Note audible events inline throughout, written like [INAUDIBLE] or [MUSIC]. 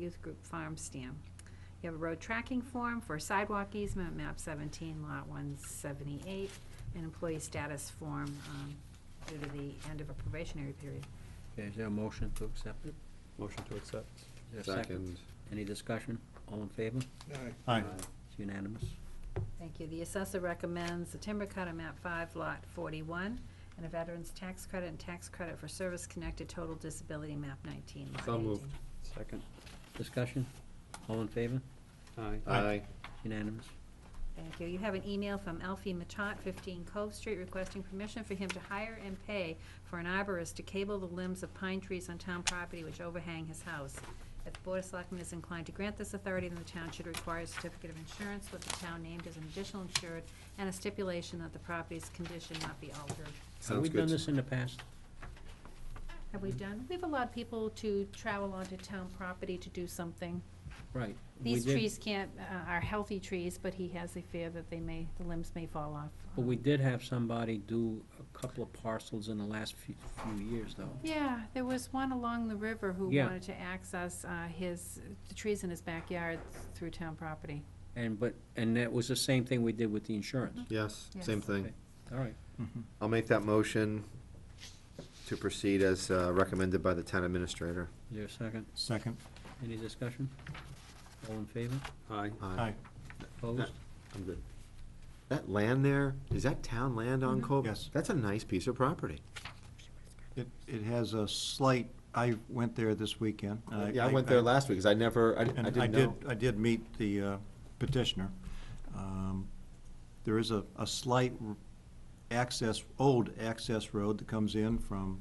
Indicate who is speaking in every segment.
Speaker 1: Youth Group Farm Stand. You have a road tracking form for sidewalk easement, map 17, lot 178, and employee status form um, due to the end of a probationary period.
Speaker 2: Okay, is there a motion to accept it?
Speaker 3: Motion to accept.
Speaker 2: Is there a second? Any discussion? All in favor?
Speaker 3: Aye.
Speaker 2: It's unanimous.
Speaker 1: Thank you. The assessor recommends the timber cut on map 5, lot 41, and a veteran's tax credit and tax credit for service-connected total disability, map 19, lot 18.
Speaker 3: So moved. Second.
Speaker 2: Discussion? All in favor?
Speaker 3: Aye.
Speaker 4: Aye.
Speaker 2: Unanimous.
Speaker 1: Thank you. You have an email from Alfie Matot, 15 Cove Street, requesting permission for him to hire and pay for an arborist to cable the limbs of pine trees on town property which overhang his house. If the Board of Selectmen is inclined to grant this authority, then the town should require a certificate of insurance with the town named as an additional insured and a stipulation that the property's condition not be altered.
Speaker 2: Have we
Speaker 4: Sounds
Speaker 2: done
Speaker 4: good.
Speaker 2: this in the past?
Speaker 1: Have we done, we've allowed people to travel onto town property to do something.
Speaker 2: Right. we
Speaker 1: These
Speaker 2: did-
Speaker 1: trees can't, uh, are healthy trees, but he has a fear that they may, the limbs may fall off.
Speaker 2: But we did have somebody do a couple of parcels in the last few, few years, though.
Speaker 1: Yeah, there was one along the river who
Speaker 2: Yeah.
Speaker 1: wanted to access uh, his, the trees in his backyard through town property.
Speaker 2: And, but, and that was the same thing we did with the insurance.
Speaker 3: Mm-hmm.
Speaker 4: Yes, same
Speaker 1: Yes.
Speaker 4: thing.
Speaker 2: All right.
Speaker 4: I'll make that motion to proceed as uh, recommended by the town administrator.
Speaker 2: Is there a second?
Speaker 5: Second.
Speaker 2: Any discussion? All in favor?
Speaker 3: Aye.
Speaker 5: Aye.
Speaker 2: Opposed?
Speaker 4: Uh, I'm good. That land there, is that town land on Cove?
Speaker 5: Yes.
Speaker 4: That's a nice piece of property.
Speaker 5: It, it has a slight, I went there this weekend. and
Speaker 4: Yeah, I went there last week, because I never, I I
Speaker 5: And
Speaker 4: didn't
Speaker 5: I did,
Speaker 4: know.
Speaker 5: I did meet the uh, petitioner. Um, There is a, a slight r- access, old access road that comes in from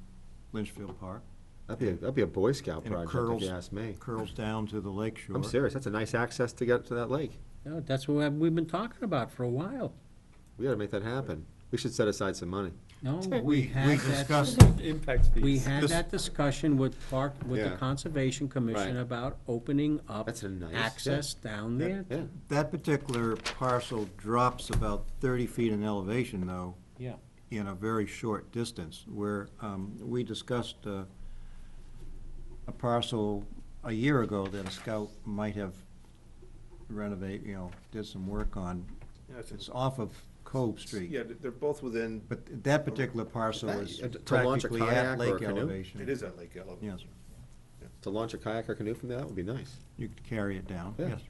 Speaker 5: Lynchfield Park.
Speaker 4: That'd be, a- that'd be a Boy Scout
Speaker 5: and it
Speaker 4: project, if
Speaker 5: curls-
Speaker 4: you ask me.
Speaker 5: Curls down to the lake shore.
Speaker 4: I'm serious, that's a nice access to get to that lake.
Speaker 2: No, that's what we've been talking about for a while.
Speaker 4: We gotta make that happen. We should set aside some money.
Speaker 2: No,
Speaker 5: We-
Speaker 2: we
Speaker 5: we
Speaker 2: had that,
Speaker 5: discussed-
Speaker 3: Impact fees.
Speaker 2: we had
Speaker 5: This-
Speaker 2: that discussion with Park, with the
Speaker 4: Yeah.
Speaker 2: Conservation Commission
Speaker 4: Right.
Speaker 2: about opening up
Speaker 4: That's a nice- yeah.
Speaker 2: access down there.
Speaker 4: Yeah,
Speaker 5: That particular parcel drops about thirty feet in elevation, though,
Speaker 2: Yeah.
Speaker 5: in a very short distance, where um, we discussed uh, a parcel a year ago that a scout might have renovate, you know, did some work on.
Speaker 6: Yeah, it's-
Speaker 5: It's off of Cove Street,
Speaker 6: Yeah, th- they're both within,
Speaker 5: but that particular parcel is
Speaker 4: To launch a
Speaker 5: practically at
Speaker 4: kayak or a
Speaker 5: lake
Speaker 4: canoe?
Speaker 5: elevation.
Speaker 6: it is at Lake Elevate.
Speaker 5: Yes,
Speaker 4: to launch a kayak or canoe from there, that would be nice.
Speaker 5: you could carry it down,
Speaker 4: Yeah.
Speaker 5: yes.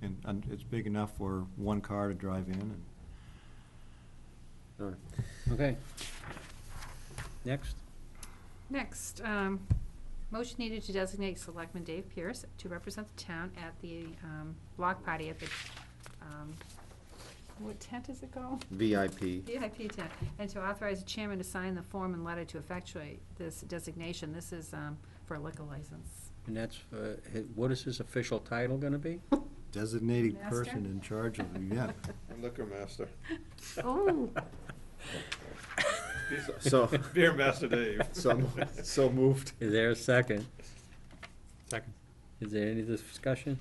Speaker 5: And- And it's big enough for one car to drive in and
Speaker 4: All right.
Speaker 2: Okay. Next,
Speaker 1: Next, um, motion needed to designate Selectman Dave Pierce to represent the town at the um, block party at the, um, what tent is it called? [LAUGHS]
Speaker 4: VIP.
Speaker 1: VIP tent, and to authorize the chairman to sign the form and letter to effectuate this designation. This is um, for a liquor license.
Speaker 2: and that's, uh, hi- what is his official title gonna be?
Speaker 5: designated
Speaker 1: Master?
Speaker 5: person in charge of the event. [LAUGHS]
Speaker 6: I'm Liquor master,
Speaker 1: Oh,
Speaker 4: So,
Speaker 6: beer master Dave.
Speaker 4: so, I'm- so moved.
Speaker 2: Is there a second?
Speaker 3: Second.
Speaker 2: Is there any discussion?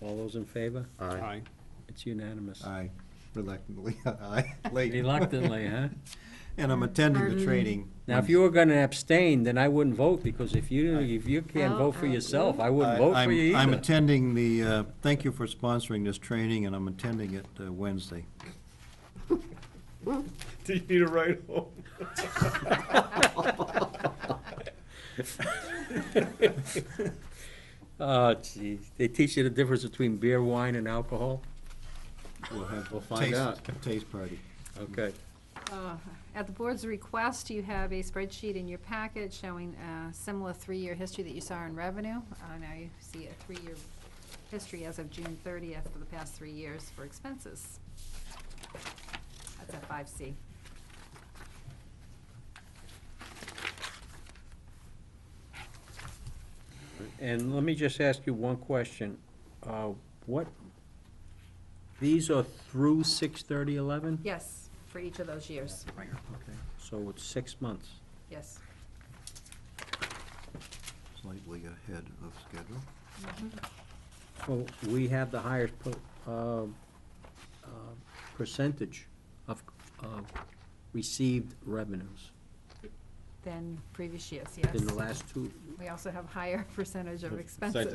Speaker 2: All those in favor?
Speaker 4: Aye.
Speaker 3: Aye.
Speaker 2: It's unanimous.
Speaker 5: Aye, reluctantly, [LAUGHS] aye, late.
Speaker 2: Reluctantly, huh?
Speaker 5: [LAUGHS] And I'm attending the training.
Speaker 2: Now, if you were gonna abstain, then I wouldn't vote, because if you, if you can't
Speaker 1: Oh,
Speaker 2: vote for
Speaker 1: I
Speaker 2: yourself, I
Speaker 5: I-
Speaker 2: wouldn't vote for
Speaker 5: I'm-
Speaker 2: you
Speaker 5: I'm
Speaker 2: either.
Speaker 5: attending the, uh, thank you for sponsoring this training, and I'm attending it uh, Wednesday.
Speaker 6: Do you need a ride home?
Speaker 2: [LAUGHS] Oh, geez, they teach you the difference between beer, wine, and alcohol?
Speaker 5: We'll have
Speaker 4: We'll find
Speaker 5: taste-
Speaker 4: out.
Speaker 5: Taste party.
Speaker 2: Okay.
Speaker 1: Uh, At the board's request, you have a spreadsheet in your packet showing a similar three-year history that you saw in revenue. Uh, Now you see a three-year history as of June 30th for the past three years for expenses. That's at 5C.
Speaker 2: And let me just ask you one question. Uh, What, these are through six thirty eleven?
Speaker 1: Yes, for each of those years,
Speaker 2: Okay, so it's six months.
Speaker 1: yes.
Speaker 5: Slightly ahead of schedule.
Speaker 2: So we have the highest per- uh, uh, percentage of of received revenues
Speaker 1: Than previous years, yes.
Speaker 2: in the last two,
Speaker 1: We also have higher [LAUGHS] percentage of
Speaker 2: Of
Speaker 1: expenses.